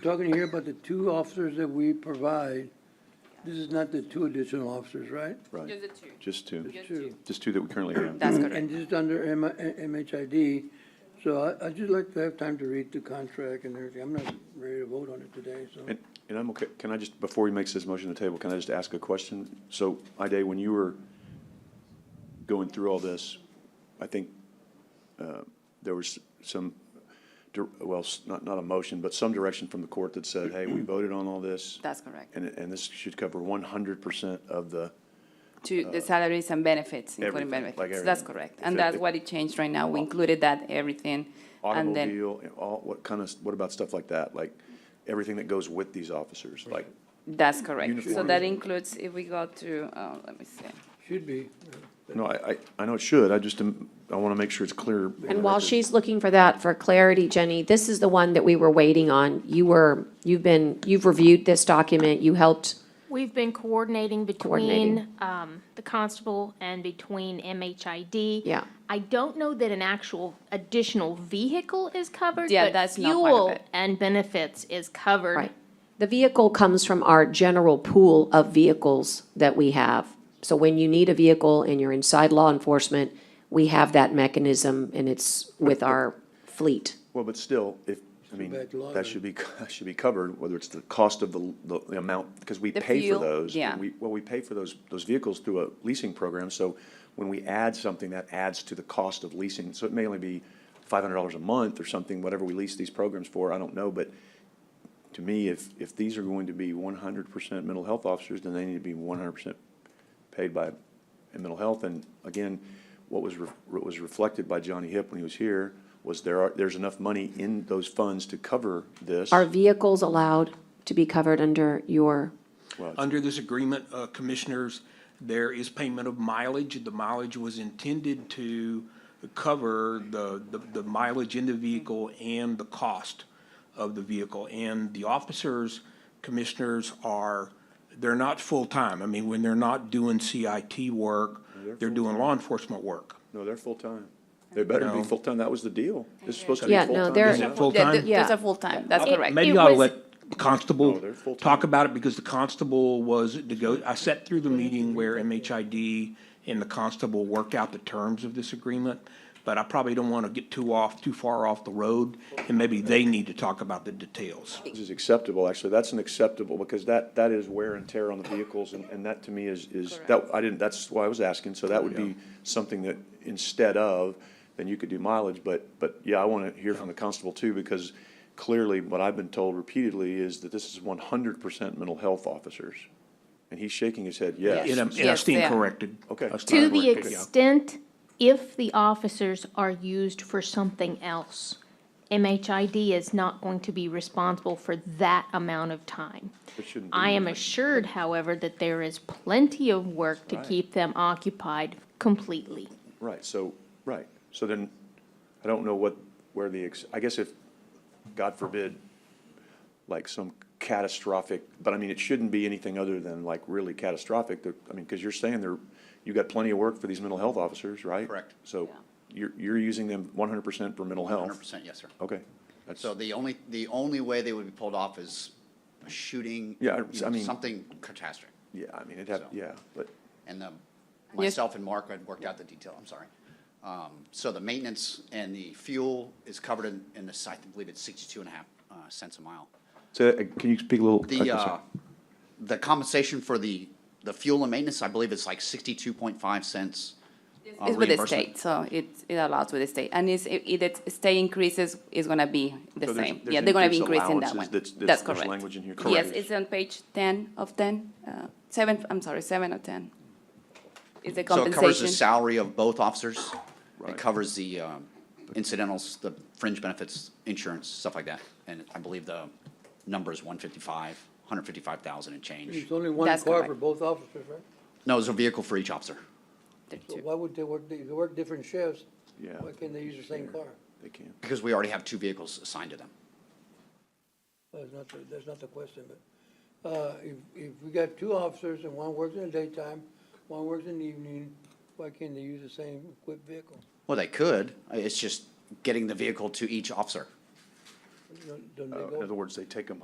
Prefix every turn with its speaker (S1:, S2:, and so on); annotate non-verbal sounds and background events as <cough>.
S1: talking here about the two officers that we provide. This is not the two additional officers, right?
S2: Just
S3: Right,
S2: the two.
S3: just two,
S2: Just
S1: Two.
S2: two.
S3: just two that we currently have.
S4: That's
S1: And
S4: correct.
S1: this is under M- uh, MHID, so I, I'd just like to have time to read the contract and everything. I'm not ready to vote on it today, so.
S3: And, and I'm okay, can I just, before he makes his motion to table, can I just ask a question? So, Ida, when you were going through all this, I think, uh, there was some, dir- well, s- not, not a motion, but some direction from the court that said, hey, we voted on all this.
S4: That's correct.
S3: And, and this should cover one hundred percent of the,
S4: To the salaries and benefits, including
S3: Uh, everything, like
S4: benefits. That's
S3: everything.
S4: correct.
S3: If it-
S4: And that's
S3: if-
S4: what it changed right now. We included that, everything. And then,
S3: automobile, and all, what kind of, what about stuff like that? Like, everything that goes with these officers, like,
S4: that's correct. So
S3: Uniforms.
S4: that includes, if we go to, uh, let me see.
S1: Should be.
S3: no, I, I, I know it should, I just, am- I want to make sure it's clear. on the
S5: And while
S3: record.
S5: she's looking for that for clarity, Jenny, this is the one that we were waiting on. You were, you've been, you've reviewed this document, you helped,
S6: We've been coordinating between
S5: Coordinating.
S6: um, the constable and between MHID.
S5: Yeah.
S6: I don't know that an actual additional vehicle is covered.
S4: Yeah,
S6: but
S4: that's not part of
S6: Fuel
S4: it.
S6: and benefits is covered.
S5: right? The vehicle comes from our general pool of vehicles that we have. So when you need a vehicle and you're inside law enforcement, we have that mechanism and it's with our fleet.
S3: Well, but still, if, I mean,
S1: back to law
S3: that
S1: then.
S3: should be, <laughs> that should be covered, whether it's the cost of the, the the amount, because we
S4: The
S3: pay for
S4: fuel,
S3: those.
S4: yeah.
S3: We, well, we pay for those, those vehicles through a leasing program, so when we add something, that adds to the cost of leasing. So it may only be five hundred dollars a month or something, whatever we lease these programs for, I don't know, but to me, if, if these are going to be one hundred percent mental health officers, then they need to be one hundred percent paid by in mental health. And again, what was, re- what was reflected by Johnny Hip when he was here was there are, there's enough money in those funds to cover this.
S5: Are vehicles allowed to be covered under your,
S7: Under this agreement, uh, commissioners, there is payment of mileage. The mileage was intended to cover the, the- the mileage in the vehicle and the cost of the vehicle. And the officers, commissioners are, they're not full-time. I mean, when they're not doing CIT work, they're doing law enforcement work.
S3: No, they're full-time. They better be
S7: No.
S3: full-time. That was the deal. This is supposed to be
S5: Yeah,
S3: full-time.
S5: no, they're-
S7: Is it
S4: Yeah, th-
S7: full-time?
S4: Those
S5: Yeah.
S4: are full-time. That's correct.
S7: Maybe
S6: It
S7: you ought to
S6: was-
S7: let the
S3: No,
S7: constable
S3: they're full-time.
S7: talk about it, because the constable was, to go, I sat through the meeting where MHID and the constable worked out the terms of this agreement, but I probably don't want to get too off, too far off the road, and maybe they need to talk about the details.
S3: This is acceptable, actually. That's an acceptable, because that, that is wear and tear on the vehicles, and, and that to me is, is, that, I didn't, that's why I was asking, so that would be something that, instead of, then you could do mileage, but, but, yeah, I wanna hear from the constable too, because clearly, what I've been told repeatedly is that this is one hundred percent mental health officers. And he's shaking his head,
S7: And
S3: yes.
S7: I'm, and I
S4: Yes, they
S7: stand
S4: are.
S7: corrected.
S3: Okay.
S7: I stand
S6: To the
S7: corrected, yeah.
S6: extent if the officers are used for something else, MHID is not going to be responsible for that amount of time.
S3: It shouldn't be.
S6: I am assured, however, that there is plenty of work to keep them occupied completely.
S3: Right, so, right, so then, I don't know what, where the, ex I guess if, God forbid, like some catastrophic, but I mean, it shouldn't be anything other than like really catastrophic, There- I mean, because you're saying there, you got plenty of work for these mental health officers, right?
S8: Correct.
S3: So, you're, you're using them one hundred percent for mental health?
S8: Hundred percent, yes, sir.
S3: Okay, Oh. that's,
S8: So the only, the only way they would be pulled off is a shooting.
S3: Yeah, I-
S8: you know,
S3: I mean-
S8: Something catastrophic.
S3: yeah, I mean, it'd have,
S8: So-
S3: yeah, but,
S8: And the, myself and Mark had worked out the detail, I'm sorry. Um, so the maintenance and the fuel is covered in, in the, I believe it's sixty-two and a half uh, cents a mile.
S3: so, uh, can you speak a little? I'm
S8: The,
S3: sorry.
S8: uh, the compensation for the, the fuel and maintenance, I believe is like sixty-two point five cents. uh,
S4: It's with the
S8: reimbursement.
S4: state, so it, it allows with the state. And it's, if the state increases, it's gonna be the
S3: So there's-
S4: same.
S3: there's
S4: Yeah, they're gonna be
S3: increased
S4: increasing that
S3: allowances
S4: one.
S3: that's- that's-
S4: That's
S3: there's
S4: correct.
S3: language in here.
S4: Yes,
S3: Correct.
S4: it's on page ten of ten, uh, seven, I'm sorry, seven of ten. Is the
S8: So it covers the
S4: compensation.
S8: salary of both officers.
S3: Right.
S8: It covers the um, incidentals, the fringe benefits, insurance, stuff like that. And I believe the number is one fifty-five, hundred fifty-five thousand and change.
S1: It's only one
S4: That's
S1: car for
S4: correct.
S1: both officers, right?
S8: No, it's a vehicle for each officer.
S1: So why would they work, they work different shifts?
S3: Yeah.
S1: Why can't they use the same car?
S3: They can.
S8: Because we already have two vehicles assigned to them.
S1: That's not, the- that's not the question, but, uh, if, if we got two officers and one works in the daytime, one works in the evening, why can't they use the same equipped vehicle?
S8: Well, they could. It's just getting the vehicle to each officer.
S1: Don't- don't they
S3: Uh,
S1: go-
S3: In other words, they take them